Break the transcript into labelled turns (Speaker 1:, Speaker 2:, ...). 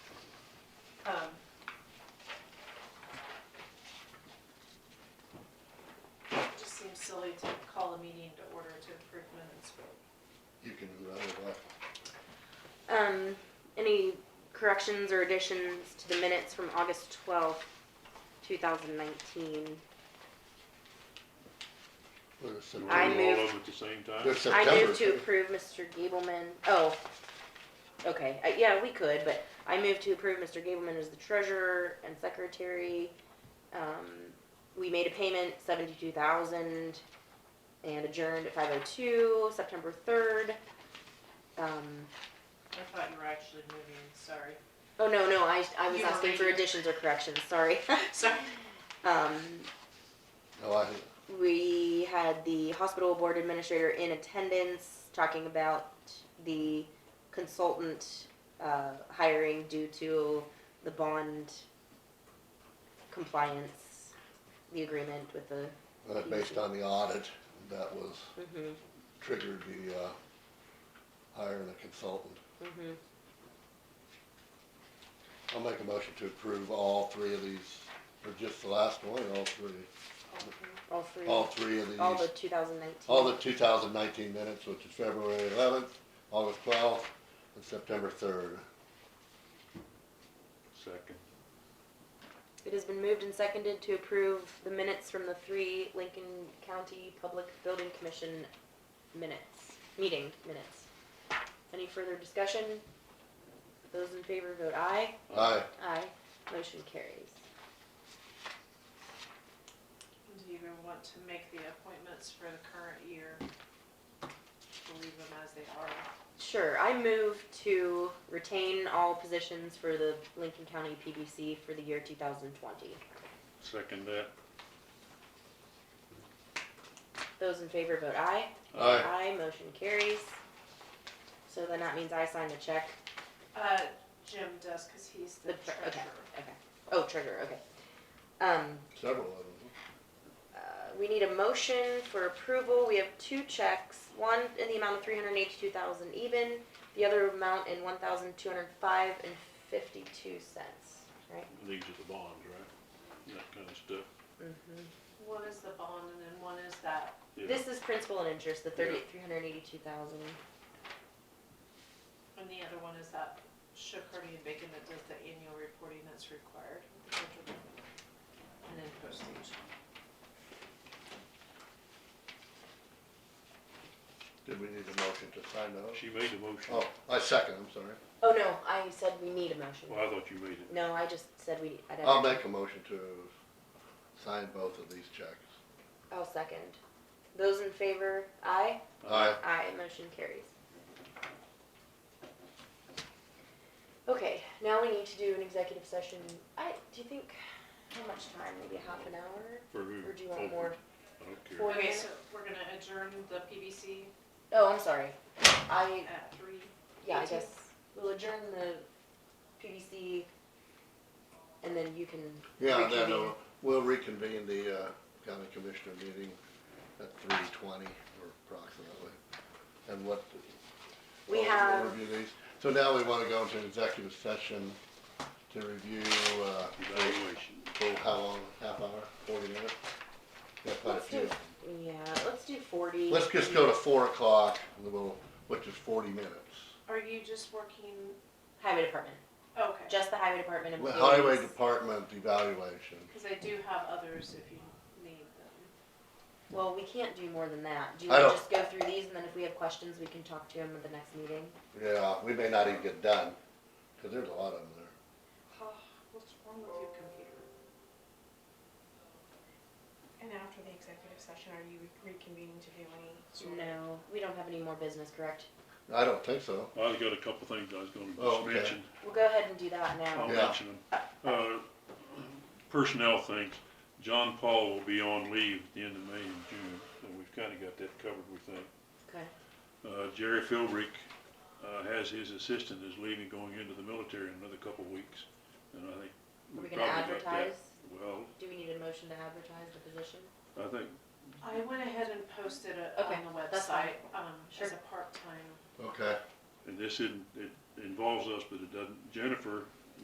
Speaker 1: Um, silly to call a meeting to order to approve minutes, but
Speaker 2: You can do that or what?
Speaker 3: Um, any corrections or additions to the minutes from August twelfth, two thousand nineteen?
Speaker 2: Well, it's
Speaker 3: I
Speaker 2: September.
Speaker 3: move-
Speaker 4: All of them at the same time?
Speaker 2: It's
Speaker 3: I
Speaker 2: September.
Speaker 3: move to approve Mr. Gableman, oh, okay, uh, yeah, we could, but I move to approve Mr. Gableman as the treasurer and secretary. Um, we made a payment, seventy-two thousand, and adjourned at five oh two, September third. Um,
Speaker 1: I thought you were actually moving, sorry.
Speaker 3: oh, no, no, I, I was
Speaker 1: You were
Speaker 3: asking for
Speaker 1: reading.
Speaker 3: additions or corrections, sorry.
Speaker 1: Sorry.
Speaker 3: Um,
Speaker 2: No, I,
Speaker 3: We had the hospital board administrator in attendance talking about the consultant uh, hiring due to the bond compliance, the agreement with the.
Speaker 2: uh, based on the audit, that was
Speaker 3: Mhm,
Speaker 2: triggered the, uh, hiring a consultant.
Speaker 3: mhm.
Speaker 2: I'll make a motion to approve all three of these, or just the last one, all three,
Speaker 3: All three,
Speaker 2: all
Speaker 3: all
Speaker 2: three of these.
Speaker 3: the 2019.
Speaker 2: All the two thousand nineteen minutes, which is February eleventh, August twelfth, and September third.
Speaker 4: Second.
Speaker 3: It has been moved and seconded to approve the minutes from the three Lincoln County Public Building Commission minutes, meeting minutes. Any further discussion? Those in favor vote aye.
Speaker 2: Aye,
Speaker 3: Aye. Motion carries.
Speaker 1: Do you even want to make the appointments for the current year? We'll Leave them as they are.
Speaker 3: Sure, I move to retain all positions for the Lincoln County PBC for the year two thousand twenty.
Speaker 4: Second that.
Speaker 3: Those in favor vote aye.
Speaker 2: aye,
Speaker 3: Aye, motion carries. So then that means I signed a check
Speaker 1: Uh, Jim does, cause he's the
Speaker 3: The tre- okay.
Speaker 1: treasurer.
Speaker 3: Okay. Oh, treasurer, okay. Um,
Speaker 2: several of them.
Speaker 3: uh, we need a motion for approval. We have two checks, one in the amount of three hundred eighty-two thousand even, the other amount in one thousand two hundred five and fifty-two cents, right?
Speaker 4: These are the bonds, right? That kind of stuff.
Speaker 3: Mm-hmm.
Speaker 1: One is the bond and then one is that,
Speaker 4: Yeah.
Speaker 3: This is principal and interest, the thirty,
Speaker 4: Yeah.
Speaker 3: three hundred eighty-two thousand.
Speaker 1: and the other one is that Shook Hardy and Bacon that does the annual reporting that's required. with the federal government. And then postage.
Speaker 2: Did we need a motion to sign those?
Speaker 4: She made the motion.
Speaker 2: Oh, I second, I'm sorry.
Speaker 3: Oh, no, I said we need a motion.
Speaker 4: Well, I thought you made it.
Speaker 3: No, I just said we, I'd have.
Speaker 2: I'll make a motion to sign both of these checks.
Speaker 3: I'll second. Those in favor, aye?
Speaker 4: Uh,
Speaker 2: Aye,
Speaker 3: Aye, motion carries. Okay, now we need to do an executive session. I, do you think, how much time? Maybe half an hour?
Speaker 4: For who?
Speaker 3: Or do you want
Speaker 4: Open.
Speaker 3: more?
Speaker 4: I don't care.
Speaker 3: Four
Speaker 1: Okay,
Speaker 3: minutes?
Speaker 1: so we're gonna adjourn the PBC
Speaker 3: Oh, I'm sorry. I,
Speaker 1: at three.
Speaker 3: yeah, I
Speaker 1: Eighteen.
Speaker 3: guess we'll adjourn the PDC and then you can
Speaker 2: yeah, then
Speaker 3: reconvene.
Speaker 2: uh, we'll reconvene the, uh, county commissioner meeting at three twenty or approximately. And what?
Speaker 3: We
Speaker 2: I'll
Speaker 3: have-
Speaker 2: Review these. So now we wanna go into executive session to review, uh,
Speaker 4: Evaluation.
Speaker 2: oh, how long, half hour, forty minutes? Yeah, quite a
Speaker 3: Let's do,
Speaker 2: few.
Speaker 3: yeah, let's do forty.
Speaker 2: Let's just go to four o'clock, and we'll- which is forty minutes.
Speaker 1: Are you just working,
Speaker 3: Highway department,
Speaker 1: okay,
Speaker 3: just the highway department employees.
Speaker 2: Highway Department evaluation.
Speaker 1: cause I do have others if you need them.
Speaker 3: Well, we can't do more than that. Do you
Speaker 2: I
Speaker 3: wanna
Speaker 2: don't-
Speaker 3: just go through these and then if we have questions, we can talk to them at the next meeting?
Speaker 2: Yeah, we may not even get done, because there's a lot of them there.
Speaker 1: Oh, What's wrong with your computer?
Speaker 5: And after the executive session, are you reconvening to do any sort of?
Speaker 3: No, we don't have any more business, correct?
Speaker 2: I don't think so.
Speaker 4: I've got a couple things I was
Speaker 2: Oh,
Speaker 4: gonna
Speaker 2: okay.
Speaker 4: mention.
Speaker 3: We'll go ahead and do that now.
Speaker 4: I'll
Speaker 2: Yeah.
Speaker 4: mention them. Uh, Personnel things, John Paul will be on leave at the end of May and June, so we've kinda got that covered, we think.
Speaker 3: Okay.
Speaker 4: Uh, Jerry Philbrick, uh, has his assistant is leaving, going into the military in another couple of weeks, and I think.
Speaker 3: Are we
Speaker 4: we've
Speaker 3: gonna
Speaker 4: probably got that.
Speaker 3: advertise?
Speaker 4: Well,
Speaker 3: Do we need a motion to advertise the position?
Speaker 4: I think,
Speaker 1: I went ahead and posted it
Speaker 3: Okay,
Speaker 1: on the
Speaker 3: that's fine.
Speaker 1: website, um,
Speaker 3: Sure.
Speaker 1: as a part-time.
Speaker 2: Okay,
Speaker 4: and this isn't, it involves us, but it doesn't, Jennifer